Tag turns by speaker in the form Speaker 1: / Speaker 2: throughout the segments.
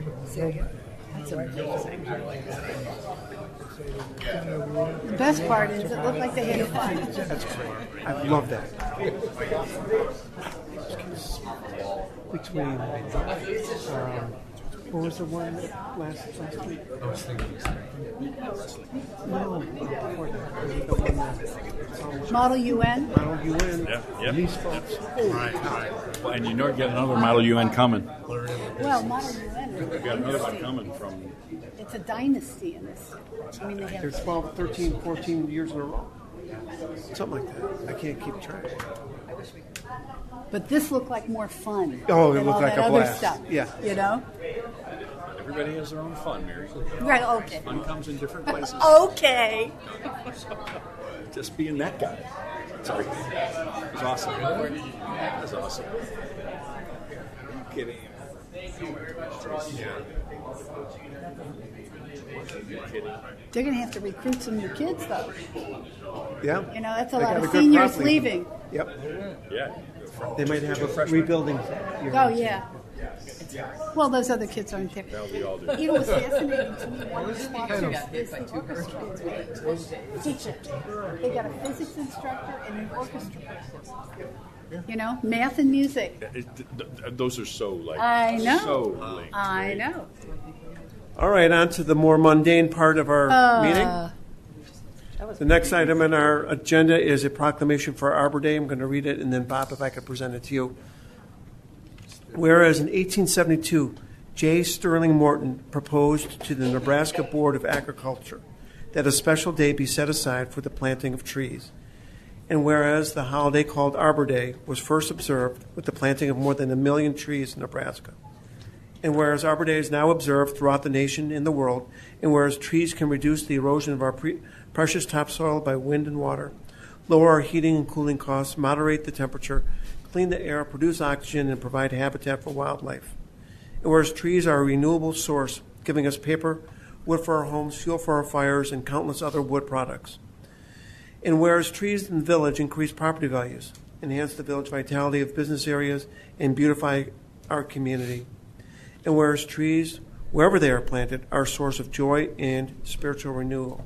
Speaker 1: That's amazing. The best part is it looked like they had fun.
Speaker 2: That's great. I love that. Between, um, what was the one that last last week? I was thinking wrestling. No, uh, before that, it was the one that
Speaker 1: Model UN.
Speaker 2: Model UN.
Speaker 3: Yeah, yeah.
Speaker 2: These folks. Holy cow!
Speaker 3: And you know, get another Model UN coming.
Speaker 1: Well, Model UN.
Speaker 3: We got another one coming from.
Speaker 1: It's a dynasty in this. I mean, they
Speaker 2: They're
Speaker 1: have.
Speaker 2: 12, 13, 14 years in a row. Something like that. I can't keep track.
Speaker 1: But this looked like more fun.
Speaker 2: Oh, it
Speaker 1: than
Speaker 2: looked
Speaker 1: all
Speaker 2: like
Speaker 1: that
Speaker 2: a
Speaker 1: other
Speaker 2: blast.
Speaker 1: stuff,
Speaker 2: Yeah.
Speaker 1: You know.
Speaker 3: Everybody has their own fun, Mary.
Speaker 1: Right. Okay.
Speaker 3: Fun comes in different places.
Speaker 1: Okay.
Speaker 3: Just being that guy. Sorry. It was awesome. That was awesome. Are you kidding? Yeah. Are you kidding?
Speaker 1: They're going to have to recruit some new kids, though.
Speaker 2: Yeah.
Speaker 1: You know, that's a
Speaker 2: They
Speaker 1: lot
Speaker 2: got
Speaker 1: of
Speaker 2: a good
Speaker 1: seniors
Speaker 2: crop
Speaker 1: leaving.
Speaker 2: Yep.
Speaker 3: Yeah.
Speaker 2: They might have a rebuilding. year.
Speaker 1: Oh yeah. Well, those other kids aren't there.
Speaker 3: That'll be all do.
Speaker 1: You know, it's fascinating to me. One of the sponsors is the orchestra teacher. They got a physics instructor and an orchestra person. You know, math and music.
Speaker 3: It, th- th- those are so like.
Speaker 1: I know.
Speaker 3: So linked.
Speaker 1: I know.
Speaker 2: All right, on to the more mundane part of our
Speaker 1: Uh,
Speaker 2: meeting. The next item on our agenda is a proclamation for Arbor Day. I'm going to read it, and then Bob, if I could present it to you. Whereas in 1872, J. Sterling Morton proposed to the Nebraska Board of Agriculture that a special day be set aside for the planting of trees. And whereas the holiday called Arbor Day was first observed with the planting of more than a million trees in Nebraska. And whereas Arbor Day is now observed throughout the nation and the world, and whereas trees can reduce the erosion of our pre- precious topsoil by wind and water, lower our heating and cooling costs, moderate the temperature, clean the air, produce oxygen, and provide habitat for wildlife. And whereas trees are a renewable source, giving us paper, wood for our homes, fuel for our fires, and countless other wood products. And whereas trees in the village increase property values, enhance the village vitality of business areas, and beautify our community. And whereas trees, wherever they are planted, are a source of joy and spiritual renewal.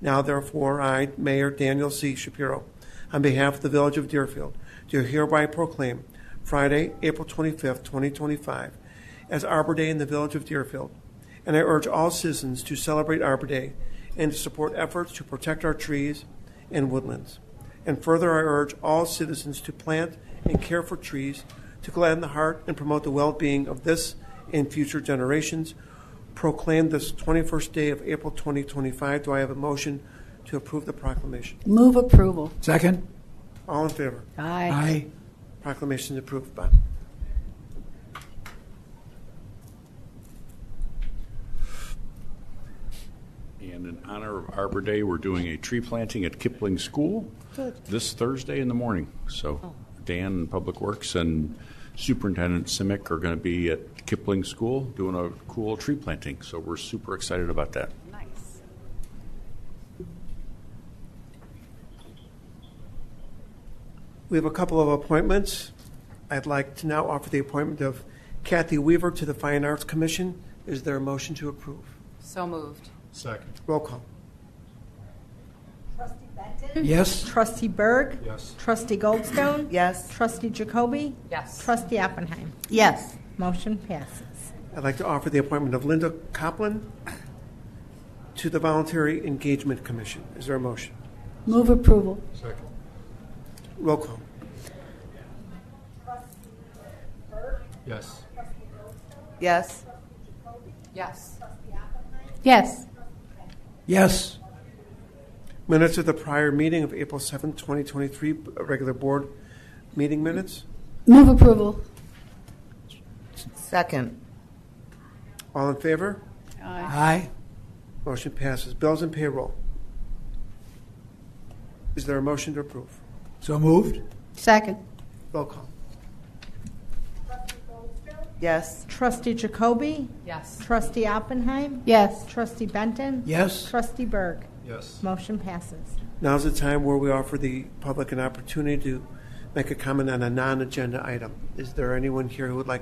Speaker 2: Now, therefore, I, Mayor Daniel C. Shapiro, on behalf of the Village of Deerfield, do hereby proclaim Friday, April 25th, 2025, as Arbor Day in the Village of Deerfield. And I urge all citizens to celebrate Arbor Day and to support efforts to protect our trees and woodlands. And further, I urge all citizens to plant and care for trees to gladden the heart and promote the well being of this and future generations. Proclaim this 21st day of April 2025. Do I have a motion to approve the proclamation?
Speaker 1: move approval.
Speaker 4: Second?
Speaker 2: All in favor?
Speaker 1: Aye.
Speaker 4: Aye.
Speaker 2: Proclamation is approved, Bob.
Speaker 3: And in honor of Arbor Day, we're doing a tree planting at Kipling School this Thursday in the morning. So Dan and Public Works and Superintendent Simic are going to be at Kipling School doing a cool tree planting. So we're super excited about that.
Speaker 1: Nice.
Speaker 2: We have a couple of appointments. I'd like to now offer the appointment of Kathy Weaver to the Fine Arts Commission. Is there a motion to approve?
Speaker 5: So moved.
Speaker 6: Second.
Speaker 2: Roll call.
Speaker 4: Yes?
Speaker 7: Trustee Berg.
Speaker 6: Yes.
Speaker 7: Trustee Goldstone.
Speaker 5: Yes.
Speaker 7: Trustee Jacoby.
Speaker 5: Yes.
Speaker 7: Trustee Oppenheim.
Speaker 1: Yes.
Speaker 7: Motion passes.
Speaker 2: I'd like to offer the appointment of Linda Copland to the Voluntary Engagement Commission. Is there a motion?
Speaker 1: Move approval.
Speaker 6: Second.
Speaker 2: Roll call.
Speaker 6: Yes.
Speaker 5: Yes. Yes.
Speaker 1: Yes.
Speaker 4: Yes.
Speaker 2: Minutes of the prior meeting of April seventh, 2023, uh, regular board meeting minutes.
Speaker 1: Move approval.
Speaker 5: Second.
Speaker 2: All in favor?
Speaker 3: Ah.
Speaker 4: Aye.
Speaker 2: Motion passes. Bills and payroll. Is there a motion to approve?
Speaker 4: So moved?
Speaker 1: Second.
Speaker 2: Roll call.
Speaker 5: Yes.
Speaker 7: Trustee Jacoby.
Speaker 5: Yes.
Speaker 7: Trustee Oppenheim.
Speaker 1: Yes.
Speaker 7: Trustee Benton.
Speaker 4: Yes?
Speaker 7: Trustee Berg.
Speaker 6: Yes.
Speaker 7: Motion passes.
Speaker 2: Now's the time where we offer the public an opportunity to make a comment on a non-agenda item. Is there anyone here who would like